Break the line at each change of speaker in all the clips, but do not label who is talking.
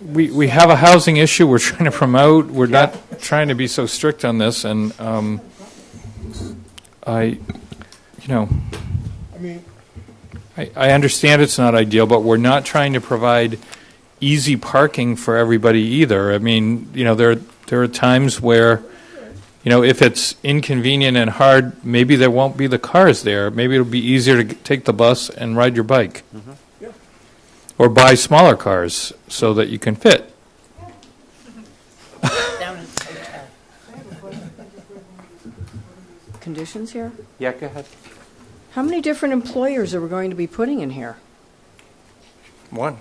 we, we have a housing issue we're trying to promote. We're not trying to be so strict on this, and um, I, you know,
I mean,
I, I understand it's not ideal, but we're not trying to provide easy parking for everybody either. I mean, you know, there, there are times where, you know, if it's inconvenient and hard, maybe there won't be the cars there. Maybe it'll be easier to g- take the bus and ride your bike.
Yeah.
Or buy smaller cars so that you can fit.
down in the hotel.
conditions here?
Yeah, go ahead.
How many different employers are we going to be putting in here?
One.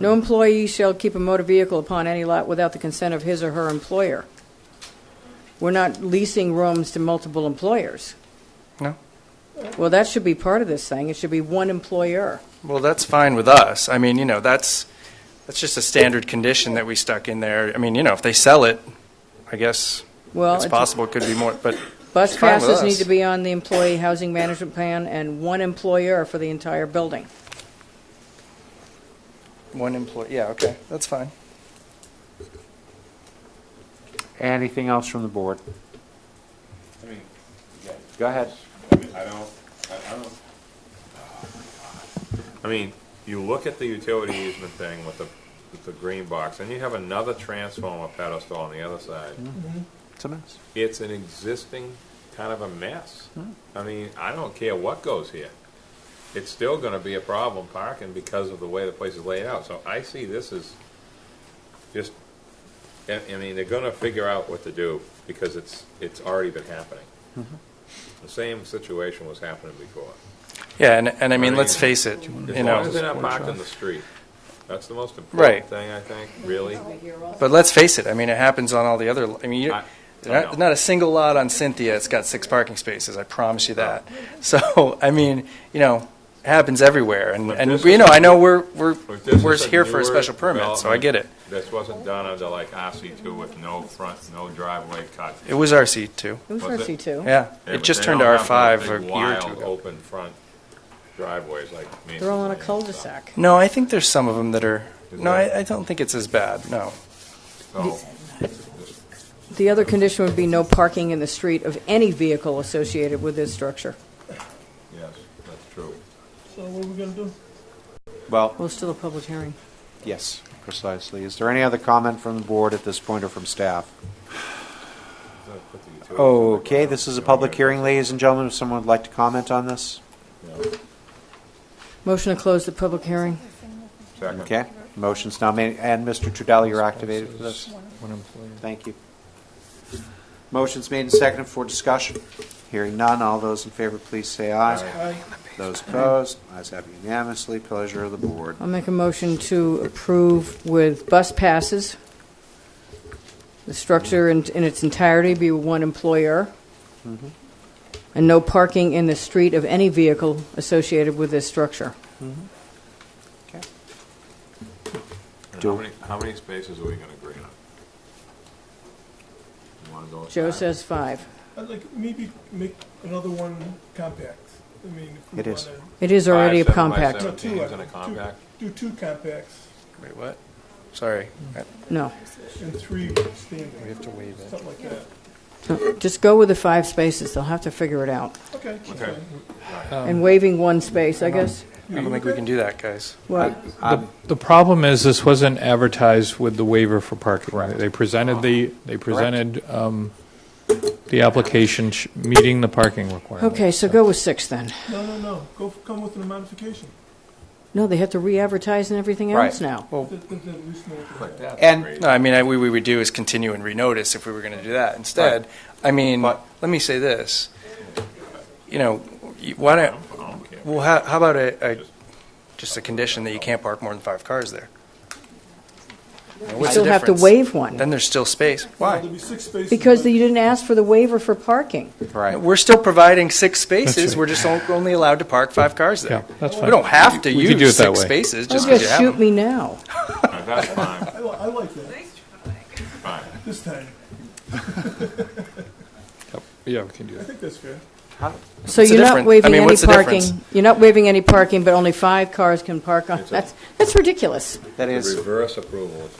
No employee shall keep a motor vehicle upon any lot without the consent of his or her employer. We're not leasing rooms to multiple employers.
No.
Well, that should be part of this thing. It should be one employer.
Well, that's fine with us. I mean, you know, that's, that's just a standard condition that we stuck in there. I mean, you know, if they sell it, I guess
Well,
it's
it's-
possible it could be more, but
Bus
fine with
passes need
us.
to be on the employee housing management plan and one employer for the entire building.
one employee, yeah, okay, that's fine.
Anything else from the board?
I mean, yeah,
Go ahead.
I mean, I don't, I, I don't. uh, I mean, you look at the utility easement thing with the, with the green box, and you have another transformer pedestal on the other side.
It's a mess.
It's an existing kind of a mess. I mean, I don't care what goes here. It's still gonna be a problem parking because of the way the place is laid out, so I see this as just, I, I mean, they're gonna figure out what to do, because it's, it's already been happening. The same situation was happening before.
Yeah, and, and I mean,
I
let's
mean,
face it, you
As long as they're
know,
not parked on the street, that's the most
Right.
important thing, I think, really.
but let's face it, I mean, it happens on all the other, I mean, you,
I- I know.
not, not a single lot on Cynthia, it's got six parking spaces, I promise you that. So, I mean, you know, it happens everywhere, and,
But
and,
this
you know,
is-
I know we're, we're,
If this
we're
is
here for
newer
a special permit, so I
development,
get it.
This wasn't done under like RC two with no front, no driveway cut.
It was RC too.
It was
Was
RC
it?
two.
Yeah,
Yeah,
it
but
just
they
turned to
don't have
R5
those
a
big,
year or two
Wild,
ago.
open front driveways like.
They're all on a
Mason's Lane and stuff.
cul-de-sac.
No, I think there's some of them that are,
Is
no,
there?
I, I don't think it's as bad, no.
So,
The other condition would be no parking in the street of any vehicle associated with this structure.
yes, that's true.
so what are we gonna do?
Well,
Well, it's still a public hearing.
yes, precisely. Is there any other comment from the board at this point or from staff?
So put the utilities on the
Okay,
ground,
this is a
you know,
public
and-
hearing, ladies and gentlemen. If someone would like to comment on this?
Motion to close the public hearing.
Second.
Okay, motion's now made, and Mr. Trudell, you're activated for this.
One employee.
Thank you. Motion's made and seconded for discussion. Hearing none, all those in favor, please say aye. Those opposed, ayes have unanimously, pleasure of the board.
I'll make a motion to approve with bus passes. The structure in, in its entirety be one employer.
Mm-hmm.
And no parking in the street of any vehicle associated with this structure.
And
Do-
How many, how many spaces are we gonna agree on? You wanna go with
Joe
five?
says five.
I'd like maybe make another one compact. I mean, if we
It is.
wanna
It is already a
Five, seven by
compact.
seven.
No, two,
Seventeen's
I-
in a
two-
compact?
Do two compacts
Wait, what? Sorry, I-
No.
and three
we
standard,
have to waive it.
something like that.
No. Just go with the five spaces. They'll have to figure it out.
Okay.
Okay. Um,
And waiving one space, I guess.
I don't think we can do that, guys.
What?
The, the problem is, this wasn't advertised with the waiver for parking. They presented the, they presented um, the application sh- meeting the parking requirement.
Okay, so go with six then.
No, no, no, go, f- come with a modification.
No, they have to re-advertise and everything else
Right.
now.
Th- th- th- at least know what we're
Like
doing.
that.
And,
No, I mean, I, we, we would do is continue and renotice if we were going to do that instead. I mean,
But-
let me say this. You know, you- why don't, well, how, how about a, a, just a condition that you can't park more than five cars there?
You still have to waive one,
Then there's still space.
There'll
Why?
be six spaces.
because
but-
you didn't ask for the waiver for parking.
right,
We're still providing six spaces. We're just on- only allowed to park five cars there.
Yeah, that's
We
fine.
don't have to
We could do it
use
that
six
way.
spaces just
Oh,
because you
just
have
shoot
them.
me now.
No, That's fine,
I, li- I like that,
fine.
this time,
Yeah, we can do
I
that.
think that's fair.
So
What's the
you're not
difference? I
waiving
mean,
any
what's the
parking.
difference?
You're not waiving any parking, but only five cars can park on,
a-
that's, that's ridiculous.
that is.
Reverse approval.